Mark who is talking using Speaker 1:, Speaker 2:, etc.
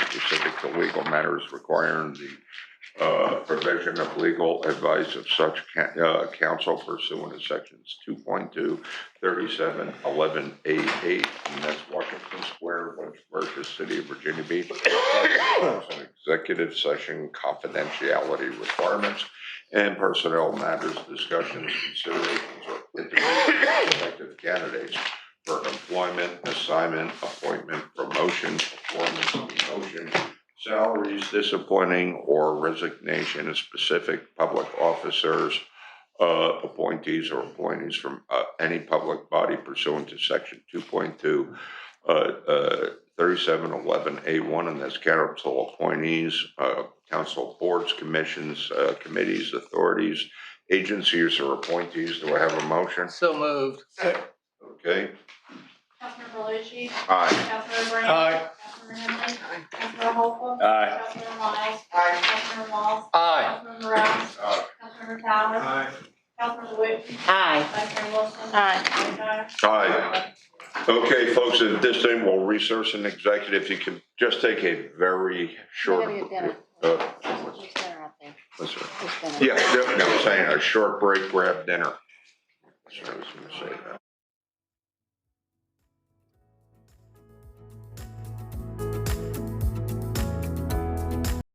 Speaker 1: to legal matters requiring the uh, provision of legal advice of such ca- uh, counsel pursuant to sections 2.2, 37, 11, A8, and that's Washington Square, Lynchburg, City of Virginia Beach. An Executive session confidentiality requirements and personnel matters, discussions, considerations, or interviews of prospective candidates for employment, assignment, appointment, promotion, performance, demotion, salaries, disappointing or resignation of specific public officers, uh, appointees or appointees from, uh, any public body pursuant to section two point two, uh, uh, thirty-seven eleven A one, and that's council appointees, uh, council boards, commissions, uh, committees, authorities, agencies or appointees. Do I have a motion?
Speaker 2: So moved.
Speaker 1: Okay,
Speaker 3: Councilmember Luci.
Speaker 1: aye.
Speaker 3: Councilmember Brandt.
Speaker 4: Aye.
Speaker 3: Councilmember Henry. Councilmember Holcomb.
Speaker 4: Aye.
Speaker 3: Councilmember Miles.
Speaker 2: Aye.
Speaker 3: Councilmember Walls.
Speaker 2: Aye.
Speaker 3: Councilmember Rounds.
Speaker 1: Aye.
Speaker 3: Councilmember Towers. Councilmember Whitten.
Speaker 5: Aye.
Speaker 3: Vice Mayor Wilson.
Speaker 5: Aye.
Speaker 3: Mayor Dyer.
Speaker 1: Aye. Okay, folks, at this time, we'll resource an executive. If you could just take a very short.
Speaker 5: Maybe dinner.
Speaker 1: Uh,
Speaker 5: There's dinner out there.
Speaker 1: that's right.
Speaker 5: There's dinner.
Speaker 1: Yeah, no, no, I'm saying a short break, grab dinner. That's what I was gonna say.